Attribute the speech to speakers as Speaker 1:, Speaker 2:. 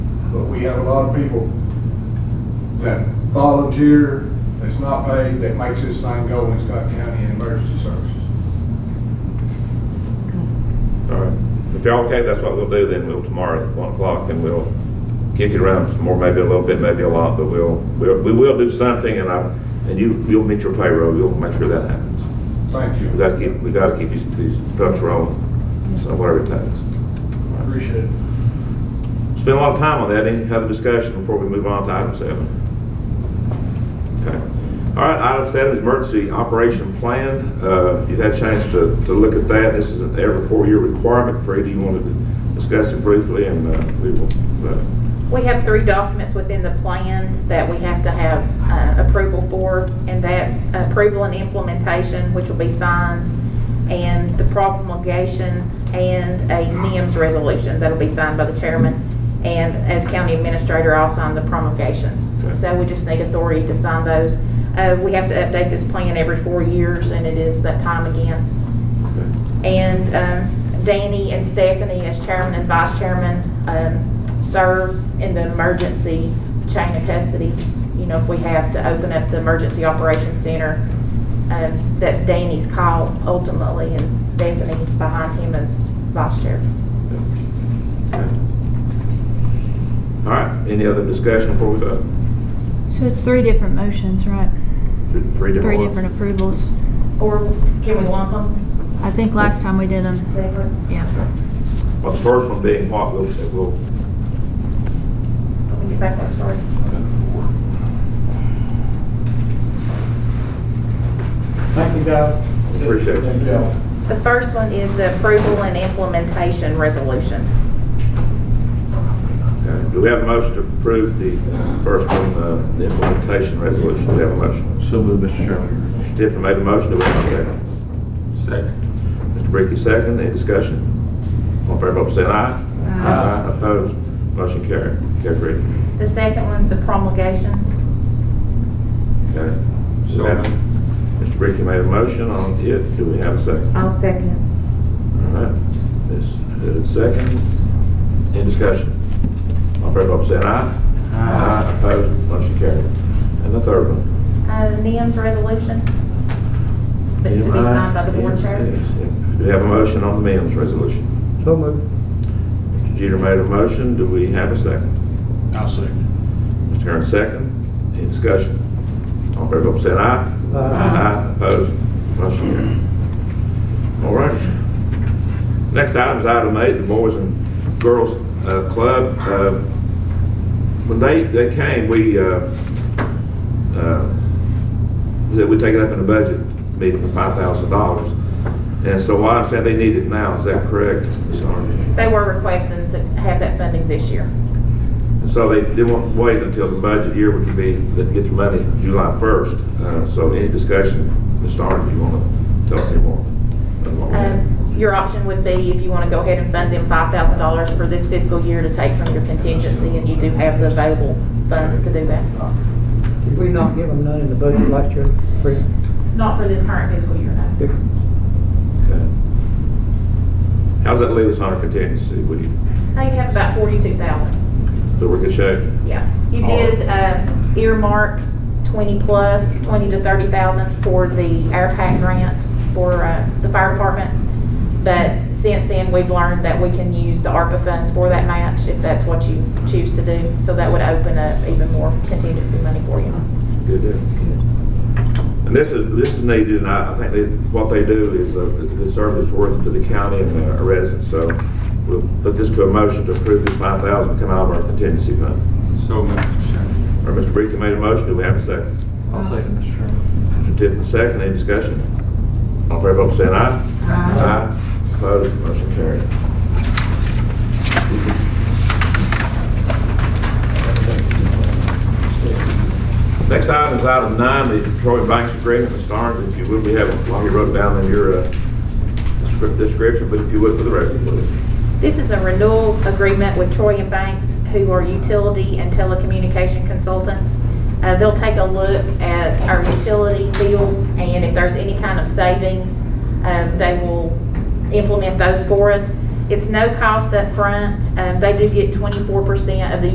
Speaker 1: but we have a lot of people that volunteer, that's not paid, that makes this thing go in Scott County in emergency services.
Speaker 2: All right. If y'all okay, that's what we'll do then. We'll tomorrow at one o'clock and we'll kick it around some more, maybe a little bit, maybe a lot, but we'll, we'll, we will do something and I, and you, you'll meet your payroll. You'll make sure that happens.
Speaker 1: Thank
Speaker 2: We
Speaker 1: you.
Speaker 2: gotta keep, we gotta keep these, these trucks rolling. So whatever it takes.
Speaker 1: Appreciate it.
Speaker 2: Spend a lot of time on that. Any other discussion before we move on to item seven? Okay. All right, item seven is emergency operation plan. Uh, You've had a chance to, to look at that. This is an every four-year requirement. Brady, you wanted to discuss it briefly, and uh, we will, uh,
Speaker 3: We have three documents within the plan that we have to have uh, approval for, and that's approval and implementation, which will be signed, and the promulgation, and a NIMS resolution that'll be signed by the chairman, and as county administrator, I'll sign the promulgation.
Speaker 2: Okay.
Speaker 3: So we just need authority to sign those. Uh, We have to update this plan every four years, and it is that time again. And um, Danny and Stephanie, as chairman and vice chairman, um, serve in the emergency chain of custody. You know, if we have to open up the emergency operations center, um, that's Danny's call ultimately, and Stephanie behind him as vice chair.
Speaker 2: all right, any other discussion before we vote?
Speaker 4: So it's three different motions, right?
Speaker 2: Three
Speaker 4: Three
Speaker 2: different
Speaker 4: different
Speaker 2: ones?
Speaker 4: approvals.
Speaker 3: Or can we lump them
Speaker 4: I think last time we did them,
Speaker 3: separate?
Speaker 4: yeah.
Speaker 2: Well, the first one being what, we'll, we'll
Speaker 3: Let me get back up, sorry.
Speaker 5: Thank you, guys.
Speaker 2: Appreciate it.
Speaker 5: Thank y'all.
Speaker 3: The first one is the approval and implementation resolution.
Speaker 2: Okay, Do we have a motion to approve the first one, uh, the implementation resolution? Do we have a motion?
Speaker 6: So moved, Mr. Chairman.
Speaker 2: Mr. Tiffany made a motion, do we have a second? Second. Mr. Bricky, second, any discussion? All in favor, vote by saying aye.
Speaker 5: Aye.
Speaker 2: Opposed, motion carried. Carried, Bricky.
Speaker 3: The second one's the promulgation.
Speaker 2: Okay.
Speaker 6: So-
Speaker 2: Now, Mr. Bricky made a motion on it, do we have a second?
Speaker 3: I'll second.
Speaker 2: All right, this, uh, second, in discussion. All in favor, vote by saying aye.
Speaker 6: Uh,
Speaker 2: Aye. Opposed, motion carried. And the third one?
Speaker 3: Uh, NIM's resolution, but to be signed by the board chair.
Speaker 2: Do we have a motion on the MEMS resolution?
Speaker 5: So moved.
Speaker 2: Mr. Jeter made a motion, do we have a second?
Speaker 6: I'll second.
Speaker 2: Mr. Herron, second, any discussion? All in favor, vote by saying aye.
Speaker 5: Aye.
Speaker 2: Opposed, motion carried. All right. Next item is item eight, the Boys and Girls uh, Club. Uh, When they, they came, we, uh, uh, that we take it up in the budget meeting, the five thousand dollars. And so I understand they need it now, is that correct, Ms. Arnold?
Speaker 3: They were requesting to have that funding this year.
Speaker 2: And so they didn't want to wait until the budget year, which would be, that get the money July first. Uh, so any discussion, Ms. Arnold, you want to tell us any more? about what we're doing?
Speaker 3: Um, Your option would be, if you want to go ahead and fund them $5,000 for this fiscal year to take from your contingency, and you do have the available funds to do that.
Speaker 5: Did we not give them none in the budget last year? Free?
Speaker 3: Not for this current fiscal year, no.
Speaker 2: Okay. How's that leave us on our contingency? Would you,
Speaker 3: Now you have about 42,000.
Speaker 2: so we're in good shape?
Speaker 3: Yeah, you
Speaker 2: All right.
Speaker 3: did uh, earmark twenty plus, twenty to thirty thousand for the AirPack grant for uh, the fire departments. But since then, we've learned that we can use the ARPA funds for that match if that's what you choose to do. So that would open up even more contingency money for you.
Speaker 2: Good deal. And this is, this is needed, and I, I think they, what they do is a, is a good service worth to the county and our residents, so we'll put this to a motion to approve this five thousand come out of our contingency fund.
Speaker 6: So moved, Mr. Chairman.
Speaker 2: Or Mr. Bricky made a motion, do we have a second?
Speaker 6: I'll second, Mr. Chairman.
Speaker 2: Mr. Tippett, second, any discussion? All in favor, vote by saying aye. Aye. Opposed, motion carried. Next item is item nine, the Detroit Banks Agreement, Mr. Starnes, if you would, we have, while you wrote down in your uh, descrip- description, but if you would for the record, please.
Speaker 3: This is a renewal agreement with Troy and Banks, who are utility and telecommunication consultants. Uh, They'll take a look at our utility bills, and if there's any kind of savings, um, they will implement those for us. It's no cost up front. Um, They do get 24% of the